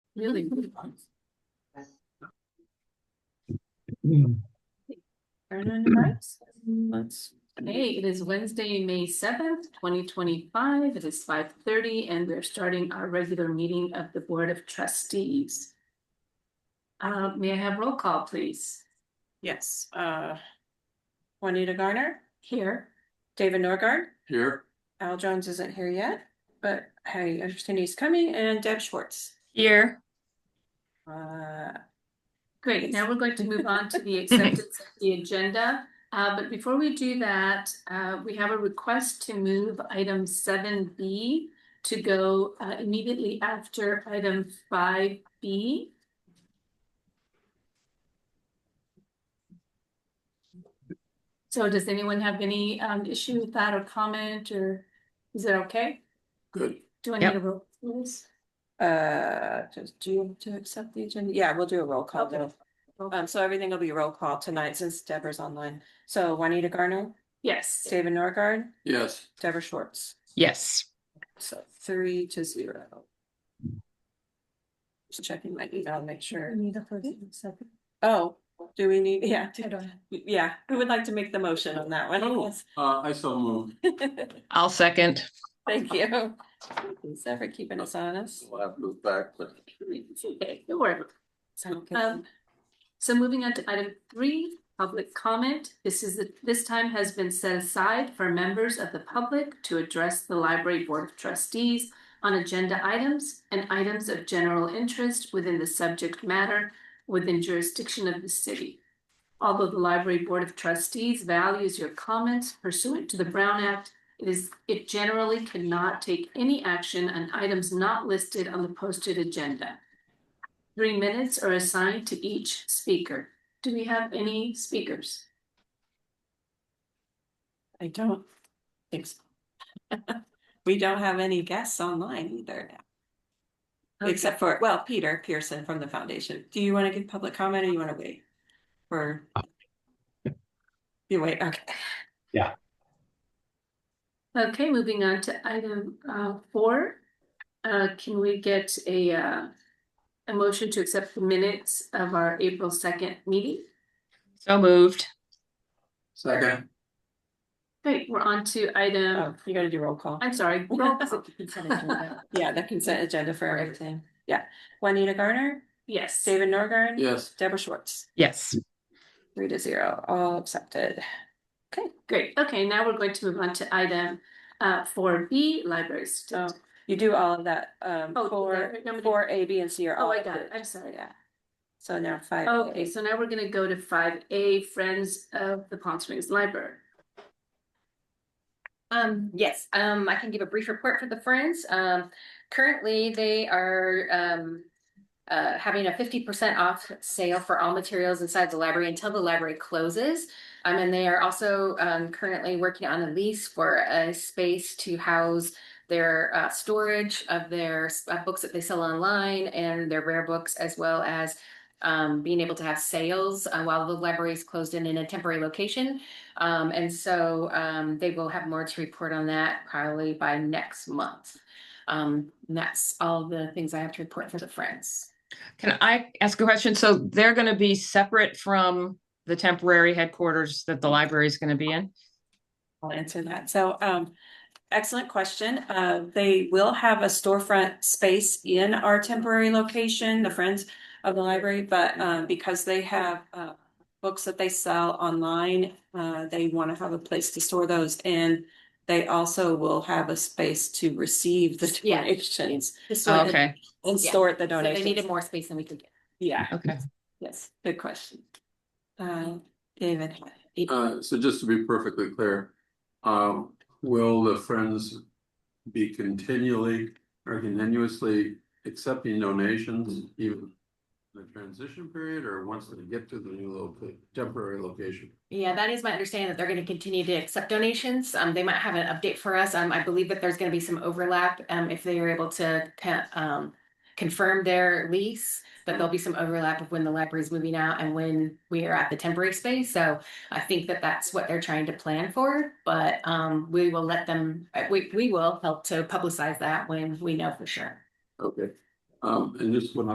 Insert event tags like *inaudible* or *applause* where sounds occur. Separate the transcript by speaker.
Speaker 1: Really?
Speaker 2: Turn on your mics. Let's,
Speaker 1: Hey, it is Wednesday, May seventh, twenty twenty-five. It is five thirty and we're starting our regular meeting of the Board of Trustees. Uh, may I have roll call, please?
Speaker 2: yes, uh. Juanita Garner,
Speaker 1: Here,
Speaker 2: David Norgard,
Speaker 3: Here,
Speaker 2: Al Jones isn't here yet, but hey, I understand he's coming, and Deb Schwartz.
Speaker 4: Here.
Speaker 2: Uh,
Speaker 1: great. Now we're going to move on to the acceptance of the agenda. Uh, but before we do that, uh, we have a request to move item seven B to go uh, immediately after item five B. So does anyone have any um issue with that or comment or is it okay?
Speaker 3: good.
Speaker 1: Do I
Speaker 4: Yep.
Speaker 1: need a roll? please?
Speaker 2: uh, just do you want to accept the agenda? Yeah, we'll do a roll call.
Speaker 1: Okay.
Speaker 2: though. Um, so everything will be roll call tonight since Deborah's online. So Juanita Garner,
Speaker 1: Yes,
Speaker 2: David Norgard,
Speaker 3: Yes,
Speaker 2: Deborah Schwartz.
Speaker 4: Yes.
Speaker 2: So three to zero. Just checking my email, make sure. Oh, do we need, yeah. do- Yeah, who would like to make the motion on that one?
Speaker 3: Oh. uh, I so move.
Speaker 4: I'll second.
Speaker 2: *laughs* Thank you. Thanks for keeping us honest.
Speaker 3: We'll have to move back, but
Speaker 1: It's okay, don't worry.
Speaker 2: Okay.
Speaker 1: Um, so moving on to item three, public comment. This is, this time has been set aside for members of the public to address the library board of trustees on agenda items and items of general interest within the subject matter within jurisdiction of the city. Although the library board of trustees values your comments pursuant to the Brown Act, it is, it generally cannot take any action on items not listed on the posted agenda. Three minutes are assigned to each speaker. Do we have any speakers?
Speaker 2: I don't think so. *laughs* We don't have any guests online either now, except for, well, Peter Pearson from the foundation. Do you want to give public comment or you want to wait? Or? You wait, okay.
Speaker 1: Okay, moving on to item uh four. Uh, can we get a uh, a motion to accept the minutes of our April second meeting?
Speaker 4: So moved.
Speaker 3: second,
Speaker 1: Great, we're on to
Speaker 2: Oh,
Speaker 1: item,
Speaker 2: You gotta do roll call.
Speaker 1: I'm
Speaker 2: *laughs*
Speaker 1: sorry. Um, roll call.
Speaker 2: Yeah, the consent agenda for everything. Yeah. Juanita Garner,
Speaker 1: Yes,
Speaker 2: David Norgren.
Speaker 3: yes,
Speaker 2: Deborah Schwartz,
Speaker 4: Yes.
Speaker 2: three to zero, all accepted.
Speaker 1: great. Okay, now we're going to move on to item uh four B, library
Speaker 2: Oh,
Speaker 1: certificate.
Speaker 2: You do all of that, um,
Speaker 1: Oh,
Speaker 2: four,
Speaker 1: yeah, I'm gonna-
Speaker 2: four, A, B, and C are all.
Speaker 1: Oh, I got it.
Speaker 2: approved.
Speaker 1: I'm sorry.
Speaker 2: Yeah. So now five.
Speaker 1: Okay,
Speaker 2: A.
Speaker 1: so now we're gonna go to five A, Friends of the Palm Springs Library.
Speaker 5: Um, yes, um, I can give a brief report for the Friends. Um, currently, they are, um, uh, having a fifty percent off sale for all materials inside the library until the library closes. Um, and they are also, um, currently working on a lease for a space to house their, uh, storage of their s- uh, books that they sell online and their rare books as well as um, being able to have sales uh, while the library is closed in in a temporary location. Um, and so, um, they will have more to report on that probably by next month. Um, and that's all the things I have to report for the friends.
Speaker 4: Can I ask a question? So they're going to be separate from the temporary headquarters that the library is going to be in?
Speaker 2: I'll answer that. So, um, excellent question. Uh, they will have a storefront space in our temporary location, the Friends of the Library, but, um, because they have, uh, books that they sell online, uh, they want to have a place to store those and they also will have a space to receive the
Speaker 5: Yeah.
Speaker 2: donations
Speaker 4: Oh, Okay,
Speaker 2: and
Speaker 5: Yeah.
Speaker 2: store the
Speaker 5: So they needed
Speaker 2: donations.
Speaker 5: more space than we could get.
Speaker 2: Yeah,
Speaker 4: okay.
Speaker 2: yes, good question. Uh, David.
Speaker 3: uh, so just to be perfectly clear. Um, will the Friends be continually or continuously accepting donations even? in The transition period or once they get to the new loca- temporary location?
Speaker 5: Yeah, that is my understanding that they're going to continue to accept donations. Um, they might have an update for us. Um, I believe that there's going to be some overlap, um, if they are able to, co- um, confirm their lease, but there'll be some overlap of when the library is moving out and when we are at the temporary space. So I think that that's what they're trying to plan for, but, um, we will let them, uh, we, we will help to publicize that when we know for sure.
Speaker 3: Okay, um, and just one